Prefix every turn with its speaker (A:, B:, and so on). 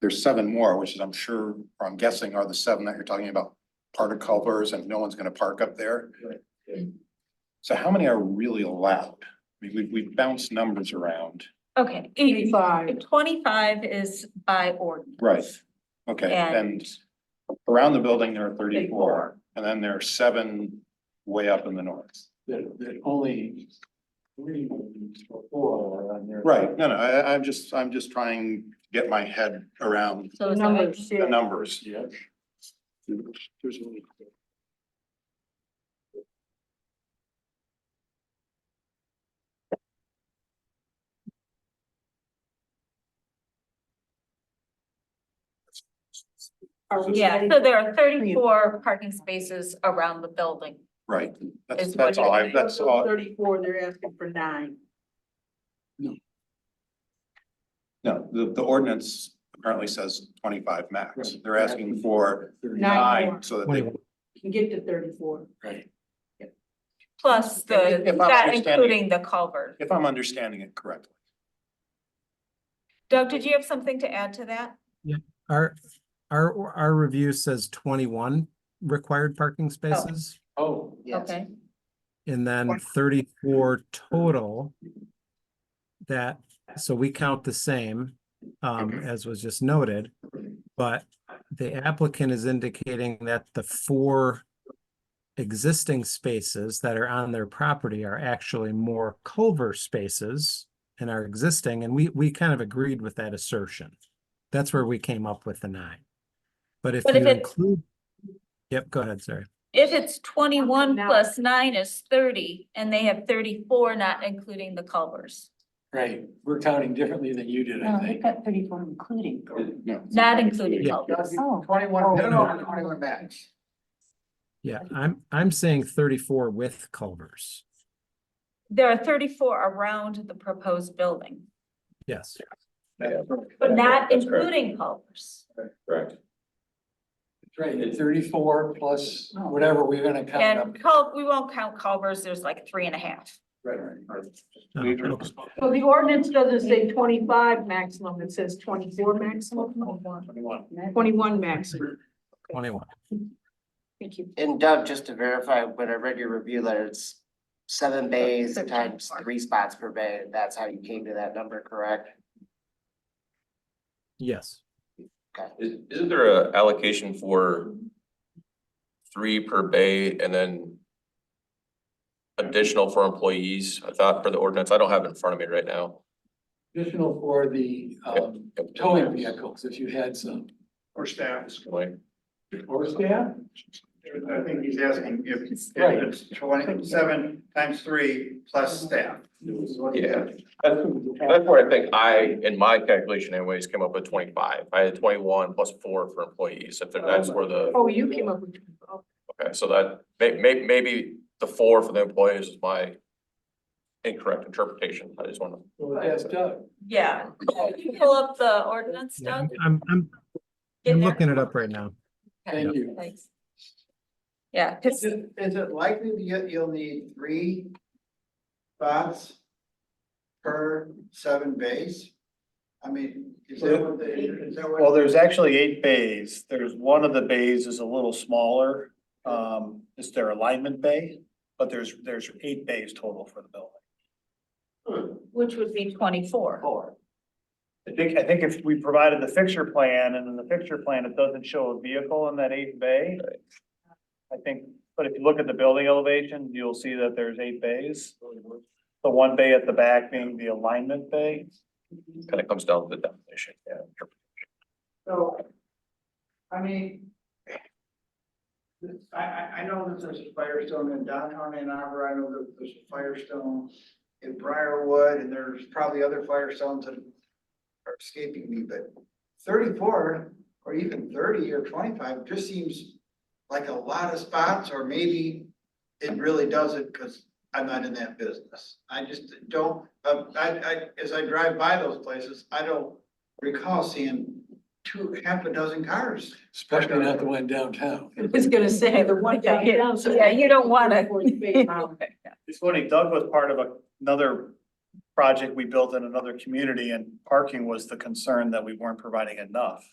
A: There's seven more, which is, I'm sure, or I'm guessing are the seven that you're talking about, particovers and no one's gonna park up there.
B: Right, yeah.
A: So how many are really allowed? I mean, we, we bounce numbers around.
C: Okay, eighty,
D: Eighty-five.
C: twenty-five is by ordinance.
A: Right. Okay, and
C: And
A: around the building, there are thirty-four, and then there are seven way up in the north.
B: that, that only three or four are on there.
A: Right, no, no, I, I'm just, I'm just trying to get my head around
C: so is that right?
D: Numbers,
A: the
D: yeah.
A: numbers.
B: Yeah. There's only.
D: Are we
C: Yeah,
D: ready?
C: so there are thirty-four parking spaces around the building.
A: Right, that's,
C: Is what
A: that's all I,
C: you're-
A: that's
D: So
A: all,
D: Thirty-four, they're asking for nine.
A: no, the, the ordinance apparently says twenty-five max.
B: Right.
A: They're asking for
D: Nine
A: nine,
D: more.
A: so that they,
D: You Can get to thirty-four.
B: Right.
C: Plus
A: If-
C: the,
A: if I'm
C: that
A: understanding-
C: including the culvert.
A: if I'm understanding it correctly.
C: Doug, did you have something to add to that?
E: Our, our, our review says twenty-one required parking spaces
B: Oh,
C: Okay.
E: and then thirty-four total. That, so we count the same, um, as was just noted. But the applicant is indicating that the four existing spaces that are on their property are actually more culvert spaces and are existing, and we, we kind of agreed with that assertion. That's where we came up with the nine. But if
C: But
E: you
C: if it-
E: include, yep, go ahead, sorry.
C: If it's twenty-one
D: Now-
C: plus nine is thirty, and they have thirty-four, not including the culvers,
B: right, we're counting differently than you did, I
F: No, they've
B: think.
F: got thirty-four including.
A: No.
C: not including
E: Yeah.
C: culvers.
F: Oh.
B: Twenty-one.
E: No, no,
F: no, 21
B: max.
E: Yeah, I'm, I'm saying thirty-four with culvers.
C: There are thirty-four around the proposed building,
E: Yes,
C: but not including culvers.
G: Correct.
B: Right, thirty-four plus whatever we're gonna count up.
C: And cul, we won't count culvers, there's like three and a half.
B: Right, right.
E: Oh,
A: Leave it.
E: okay.
D: So the ordinance doesn't say twenty-five maximum, it says twenty-four maximum,
B: Twenty-one.
D: twenty-one maximum.
E: twenty-one.
D: Thank you.
H: And Doug, just to verify, when I read your review letter, it's seven bays
C: Seven
H: times
C: times.
H: three spots per bay, and that's how you came to that number, correct?
E: Yes,
G: Is, isn't there a allocation for three per bay and then additional for employees, I thought, for the ordinance? I don't have it in front of me right now.
B: Additional for the um towing vehicles, if you had some.
I: Or staff,
G: Like,
B: Or staff?
I: I think he's asking if if
B: Right.
I: it's twenty, seven times three plus staff.
G: Yeah. That's, that's where I think I, in my calculation anyways, came up with twenty-five. I had twenty-one plus four for employees. If that's where the,
D: Oh, you came up with, oh,
G: okay, so that may, may, maybe the four for the employees is my incorrect interpretation. I just want to
B: Well, that's Doug.
C: Yeah. Can you Pull up the ordinance,
E: Yeah,
C: Doug.
E: I'm, I'm, I'm
C: Get
E: I'm
C: there.
E: looking it up right now.
B: Thank you.
C: Thanks. Yeah, 'cause-
I: is it likely that you- you'll need three spots per seven bays? I mean, is that what they, is that what?
J: Well, there's actually eight bays. There's one of the bays is a little smaller. Um, it's their alignment bay, but there's, there's eight bays total for the building.
C: which would be twenty-four.
I: Four.
J: I think, I think if we provided the fixture plan and in the fixture plan, it doesn't show a vehicle in that eighth bay. I think, but if you look at the building elevation, you'll see that there's eight bays. The one bay at the back being the alignment bay.
G: kind of comes down to the definition, yeah.
I: So, I mean. I, I, I know that there's a Firestone in downtown Ann Arbor, I know that there's a Firestone in Briarwood, and there's probably other Firestones that are escaping me, but thirty-four, or even thirty or twenty-five, just seems like a lot of spots, or maybe it really doesn't, because I'm not in that business. I just don't, uh, I, I, as I drive by those places, I don't recall seeing two, half a dozen cars.
B: Especially not the one downtown.
D: I was gonna say the one down.
C: Yeah, you don't wanna-
D: Forty-four space.
J: It's funny, Doug was part of a- another project we built in another community and parking was the concern that we weren't providing enough.